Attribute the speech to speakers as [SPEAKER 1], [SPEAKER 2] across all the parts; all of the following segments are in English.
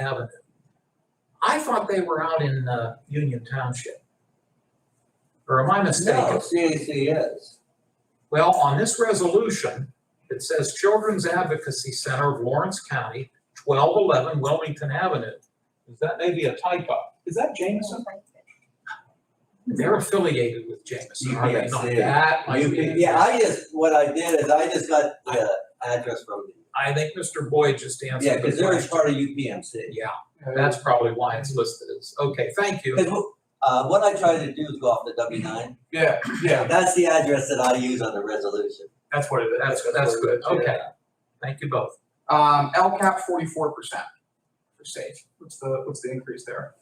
[SPEAKER 1] Avenue. I thought they were out in, uh, Union Township. Or am I
[SPEAKER 2] No,
[SPEAKER 1] mistaken?
[SPEAKER 2] CAC is.
[SPEAKER 1] Well, on this resolution, it says Children's Advocacy Center of Lawrence County, twelve eleven Wilmington Avenue. Is that maybe a typo? Is that Jameson? They're affiliated with Jameson, are they not?
[SPEAKER 2] UPSA.
[SPEAKER 1] That might be. it.
[SPEAKER 2] Yeah, I just, what I did is I just got the address from you.
[SPEAKER 1] I think Mr. Boyd just answered
[SPEAKER 2] Yeah,
[SPEAKER 1] the
[SPEAKER 2] because they're
[SPEAKER 1] question.
[SPEAKER 2] part of UPMC.
[SPEAKER 1] Yeah, that's probably why it's listed as, okay, thank you.
[SPEAKER 2] Because, uh, what I try to do is go off the W nine.
[SPEAKER 3] Yeah, yeah,
[SPEAKER 2] That's the address that I use on the resolution.
[SPEAKER 3] that's what it is.
[SPEAKER 1] That's, that's good,
[SPEAKER 3] Yeah.
[SPEAKER 1] okay. Thank you both.
[SPEAKER 3] Um, LCAP forty-four percent for state. What's the, what's the increase there?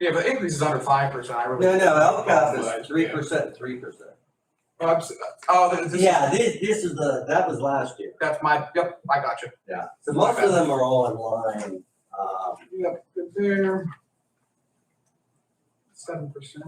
[SPEAKER 3] Yeah, but increase is under five percent, I really.
[SPEAKER 2] No, no, LCAP
[SPEAKER 3] Yeah.
[SPEAKER 2] is three percent, three percent.
[SPEAKER 3] Oh, I'm s- Oh, this is,
[SPEAKER 2] Yeah, this, this is the, that was last year.
[SPEAKER 3] that's my, yep, I got you.
[SPEAKER 2] Yeah. So most of them are all online, um,
[SPEAKER 3] Yep, good there. Seven percent.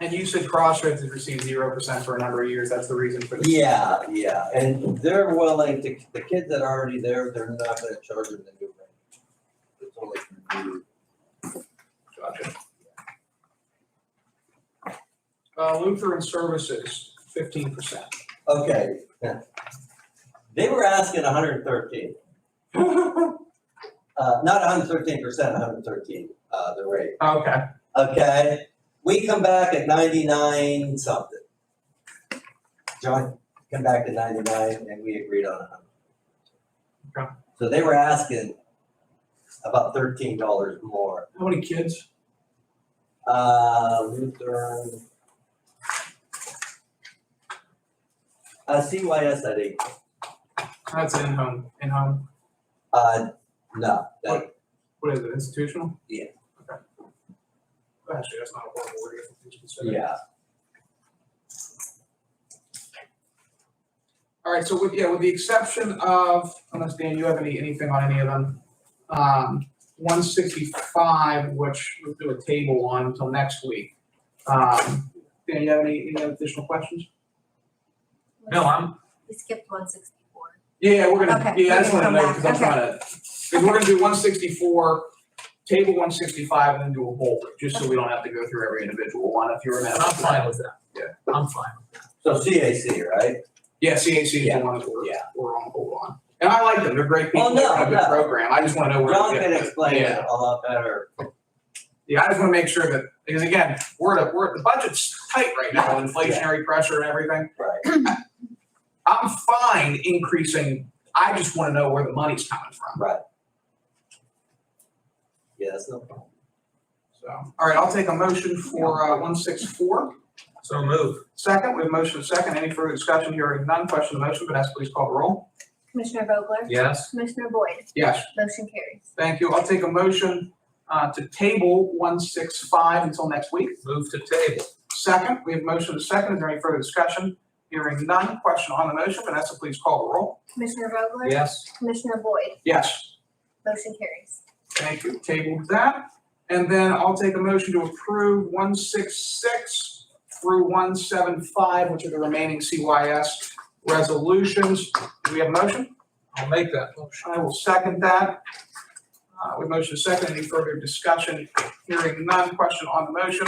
[SPEAKER 3] And you said Crossroads has received zero percent for a number of years, that's the reason for this.
[SPEAKER 2] Yeah, yeah, and they're willing to, the kids that are already there, they're not gonna charge them the new rate. It's only for new.
[SPEAKER 3] Gotcha. Uh, Lutheran Services, fifteen percent.
[SPEAKER 2] Okay. They were asking hundred and thirteen,
[SPEAKER 3] Okay,
[SPEAKER 2] uh, not hundred and thirteen percent, hundred and thirteen, uh, the rate, okay? We come back at ninety-nine something. John, come back to ninety-nine and we agreed on a
[SPEAKER 3] Okay.
[SPEAKER 2] hundred. So they were asking about thirteen dollars more.
[SPEAKER 3] how many kids?
[SPEAKER 2] Uh, Lutheran. Uh, CYS, I think,
[SPEAKER 3] That's an in-home, in-home,
[SPEAKER 2] uh, no, that,
[SPEAKER 3] what is it, institutional?
[SPEAKER 2] Yeah.
[SPEAKER 3] Okay. Actually, that's not a horrible word if it's considered.
[SPEAKER 2] yeah,
[SPEAKER 3] All right, so with, yeah, with the exception of, unless Dan, you have any, anything on any of them, um, one sixty-five, which we'll do a table on until next week. Um, Dan, you have any, any additional questions?
[SPEAKER 1] No, I'm,
[SPEAKER 4] We skipped one sixty-four.
[SPEAKER 3] Yeah, we're gonna,
[SPEAKER 4] Okay,
[SPEAKER 3] yeah, I just
[SPEAKER 4] we're
[SPEAKER 3] wanna
[SPEAKER 4] gonna
[SPEAKER 3] know,
[SPEAKER 4] come
[SPEAKER 3] because I'm
[SPEAKER 4] back,
[SPEAKER 3] trying to, because we're gonna do one sixty-four, table one sixty-five, and then do a whole, just so we don't have to go through every individual one, if you remember.
[SPEAKER 1] I'm fine with that.
[SPEAKER 3] Yeah.
[SPEAKER 1] I'm fine.
[SPEAKER 2] so CAC, right?
[SPEAKER 3] Yeah, CAC is the
[SPEAKER 2] Yeah,
[SPEAKER 3] one that we're,
[SPEAKER 2] yeah.
[SPEAKER 3] we're on hold on. And I like them, they're great people,
[SPEAKER 2] Well,
[SPEAKER 3] they
[SPEAKER 2] no,
[SPEAKER 3] have a good
[SPEAKER 2] no.
[SPEAKER 3] program, I just wanna know where. we
[SPEAKER 2] John
[SPEAKER 3] get
[SPEAKER 2] can
[SPEAKER 3] to.
[SPEAKER 2] explain
[SPEAKER 3] Yeah.
[SPEAKER 2] it a lot better,
[SPEAKER 3] Yeah, I just want to make sure that, because again, we're at, a- we're, the budget's tight right now, inflationary pressure and everything.
[SPEAKER 2] right?
[SPEAKER 3] I'm fine increasing, I just want to know where the money's coming from,
[SPEAKER 2] Yeah, that's no problem.
[SPEAKER 3] so. All right, I'll take a motion for, uh, one six four.
[SPEAKER 1] So move.
[SPEAKER 3] Second, we have motion second, any further discussion, hearing none, question on the motion, Vanessa, please call the roll.
[SPEAKER 4] Commissioner Vogler?
[SPEAKER 1] Yes.
[SPEAKER 4] Commissioner Boyd?
[SPEAKER 3] Yes,
[SPEAKER 4] Motion carries.
[SPEAKER 3] thank you, I'll take a motion, uh, to table one six five until next week.
[SPEAKER 1] Move to table.
[SPEAKER 3] Second, we have motion second, is there any further discussion? Hearing none, question on the motion, Vanessa, please call the roll.
[SPEAKER 4] Commissioner Vogler?
[SPEAKER 1] Yes.
[SPEAKER 4] Commissioner Boyd?
[SPEAKER 3] Yes.
[SPEAKER 4] Motion carries.
[SPEAKER 3] Thank you, tabled that. And then I'll take a motion to approve one six six through one seven five, which are the remaining CYS resolutions. Do we have a motion?
[SPEAKER 1] I'll make that motion.
[SPEAKER 3] I will second that. Uh, with motion second, any further discussion? Hearing none, question on the motion.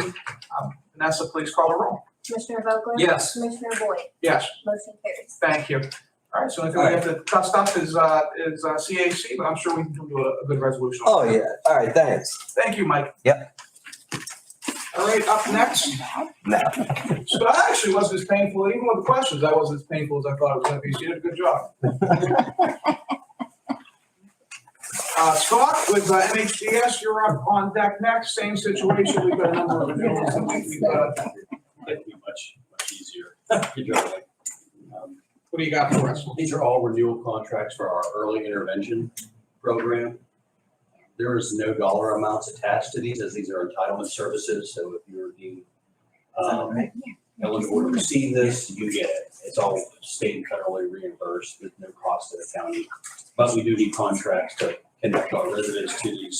[SPEAKER 3] Um, Vanessa, please call the roll.
[SPEAKER 4] Commissioner Vogler?
[SPEAKER 1] Yes.
[SPEAKER 4] Commissioner Boyd?
[SPEAKER 3] Yes,
[SPEAKER 4] Motion carries.
[SPEAKER 3] thank you. All right, so I think we have to dust up is, uh, is uh, CAC, but I'm sure we can do a, a good resolution. on
[SPEAKER 2] Oh,
[SPEAKER 3] that.
[SPEAKER 2] yeah, all right, thanks.
[SPEAKER 3] Thank you, Mike.
[SPEAKER 2] Yep.
[SPEAKER 3] All right, up next.
[SPEAKER 2] No.
[SPEAKER 3] So I actually wasn't as painful, even with the questions, I wasn't as painful as I thought it was gonna be. So you did a good job. Uh, Scott with uh, MHDS, you're up on deck next. Same situation. We've got a number of renewals. that we- we've got.
[SPEAKER 5] That'd be much, much easier. Good job, Mike. Um,
[SPEAKER 3] What do you got for us?
[SPEAKER 5] These are all renewal contracts for our early intervention program. There is no dollar amounts attached to these, as these are entitlement services, so if you're deemed um, eligible to receive this, you get it. It's all state and federally reimbursed, there's no cost to the county. But we do need contracts to connect our residents to these